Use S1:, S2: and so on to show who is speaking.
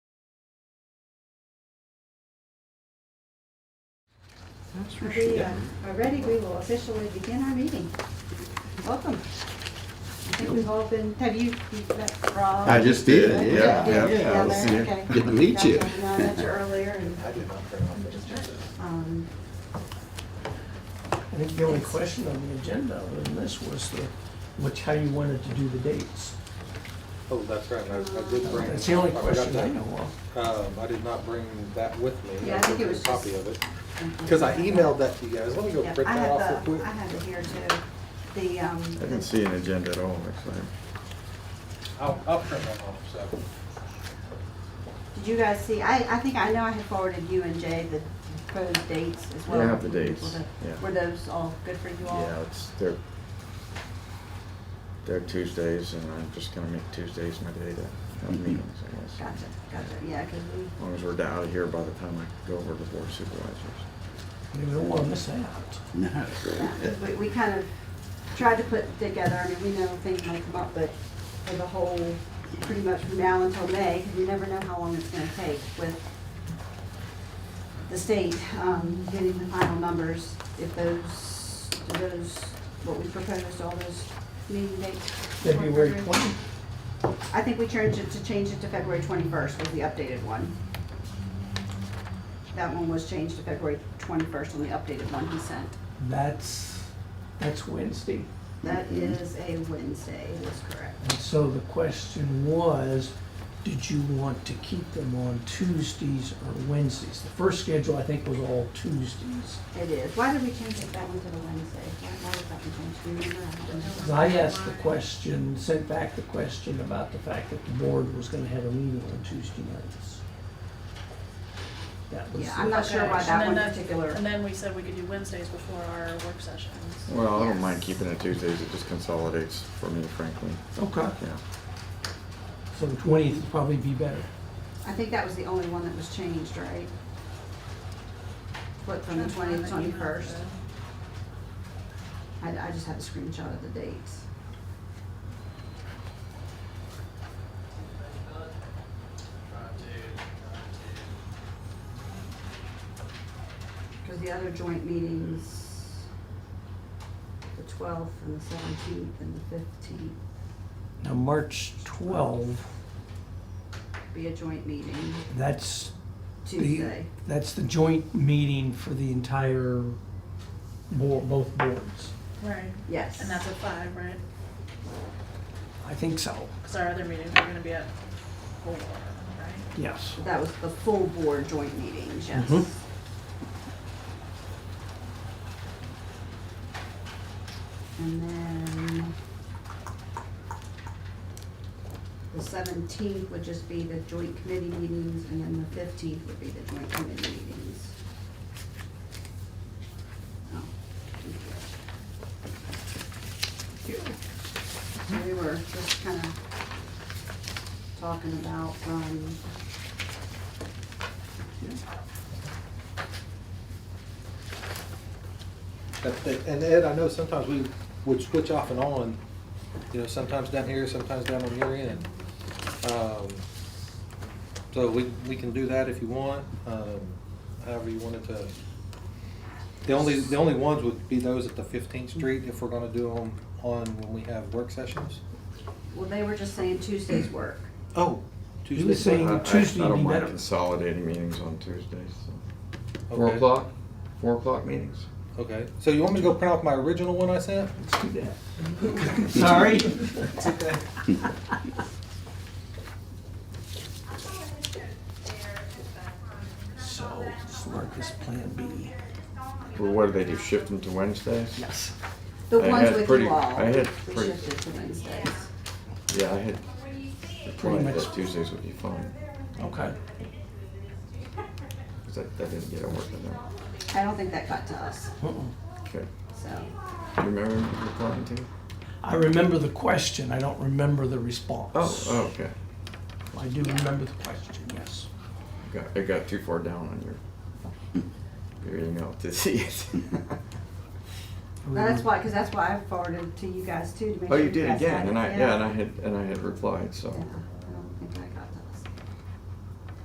S1: That's for
S2: We
S1: sure.
S2: uh, are ready, we will officially begin our meeting. Welcome. I think we've all been, have you, you met Rob?
S1: I just did,
S2: Okay,
S1: yeah,
S2: you
S1: yeah,
S2: did
S1: yeah, I was
S2: together,
S1: here.
S2: okay.
S1: Good to meet you.
S2: Yeah, I met you earlier and,
S3: I did not turn on the agenda.
S2: um,
S4: I think the only question on the agenda other than this was the, which, how you wanted to do the dates.
S3: Oh, that's right, I, I did bring.
S4: That's the only
S3: I forgot
S4: question I
S3: that.
S4: know of.
S3: Um, I did not bring that with me.
S2: Yeah, I think
S3: took
S2: it was
S3: a Copy
S2: just-
S3: of it, because I emailed that to you guys, let me go
S2: yeah,
S3: print
S2: I
S3: that off
S2: have
S3: real
S2: the, I
S3: quick.
S2: have it here too. The, um,
S1: I didn't see an agenda at all, actually.
S3: I'll, I'll print that off, so.
S2: did you guys see, I, I think, I know I had forwarded you and Jay the proposed dates as well.
S1: Yeah, I have the dates, yeah.
S2: Were those all good for you all?
S1: Yeah, it's, they're, they're Tuesdays, and I'm just gonna make Tuesdays my day to have meetings, I guess.
S2: Gotcha, gotcha, yeah, because we,
S1: As long as we're out of here by the time I go over to board of supervisors.
S4: You don't want to miss out.
S5: No.
S2: Yeah, we, we kind of tried to put together, I mean, we know things might come up, but for the whole, pretty much from now until May, 'cause you never know how long it's gonna take with the state, um, getting the final numbers, if those, do those, what we proposed, all those meeting dates. work for
S4: February
S2: everyone?
S4: 20th.
S2: I think we changed it to change it to February twenty-first was the updated one. That one was changed to February twenty-first on the updated one he sent.
S4: that's, that's Wednesday.
S2: That is a Wednesday, that's correct.
S4: And so the question was, did you want to keep them on Tuesdays or Wednesdays? The first schedule, I think, was all Tuesdays.
S2: It is. Why did we change it that one to the Wednesday? Why why was that one changed? Do you remember? I don't know.
S4: Because I asked the question, sent back the question about the fact that the board was going to have a meeting on Tuesday nights. That was.
S2: Yeah,
S4: the-
S2: I'm not sure why
S6: Okay,
S2: that
S6: and
S2: one
S6: then that-
S2: particular.
S6: And then we said we could do Wednesdays before our work sessions.
S1: Well, I don't
S2: Yes.
S1: mind keeping it Tuesdays, it just consolidates for me, frankly,
S4: Okay,
S1: yeah.
S4: so the twentieth would probably be better.
S2: I think that was the only one that was changed, right? What, from the twentieth, twenty-first? I, I just have a screenshot of the dates. Because the other joint meetings, the twelfth and the seventeenth and the fifteenth,
S4: Now, March 12,
S2: be a joint meeting
S4: that's the,
S2: Tuesday.
S4: that's the joint meeting for the entire board, both boards.
S6: Right,
S2: Yes.
S6: and that's at five, right?
S4: I think so,
S6: Because our other meetings are gonna be at four, right?
S4: yes.
S2: That was the full board joint meetings, yes.
S4: Mhm.
S2: And then the seventeenth would just be the joint committee meetings, and then the fifteenth would be the joint committee meetings. Oh, thank you. So we were just kind of talking about, um,
S3: That's it. And Ed, I know sometimes we would switch off and on, you know, sometimes down here, sometimes down on your end. Um, So we, we can do that if you want, um, however you wanted to. The only, the only ones would be those at the Fifteenth Street if we're gonna do them on when we have work sessions.
S2: well, they were just saying Tuesday's work.
S3: Oh,
S4: He was
S3: Tuesday.
S4: saying
S1: I- I-
S4: Tuesday
S1: I
S4: would
S1: don't
S4: be
S1: mind
S4: better.
S1: consolidating meetings on Tuesdays, so. Four
S3: Okay.
S1: o'clock, four o'clock meetings?
S3: Okay, so you want me to go print off my original one I sent?
S4: Let's do that. Sorry? So, let's mark this Plan B.
S1: Well, what do they do, shift them to Wednesdays?
S4: Yes.
S2: The
S1: I
S2: ones
S1: had
S2: with
S1: pretty-
S2: you all,
S1: I
S2: we
S1: had pretty-
S2: shifted to Wednesdays.
S1: Yeah, I had,
S4: Pretty much,
S1: that Tuesdays would be fine,
S4: okay.
S1: because that, that didn't get a work in there.
S2: I don't think that got to us,
S4: Uh-uh.
S1: Okay,
S2: so,
S1: you remember replying to?
S4: I remember the question, I don't remember the response.
S1: Oh, oh, okay.
S4: I do remember the question, yes.
S1: Got, it got too far down on your, your email to see it.
S2: No, that's why, because that's why I forwarded to you guys too, to make
S1: Oh,
S2: sure
S1: you
S2: you
S1: did
S2: guys had
S1: again, and I,
S2: it,
S1: yeah, and I had, and I had replied, so.
S2: Yeah.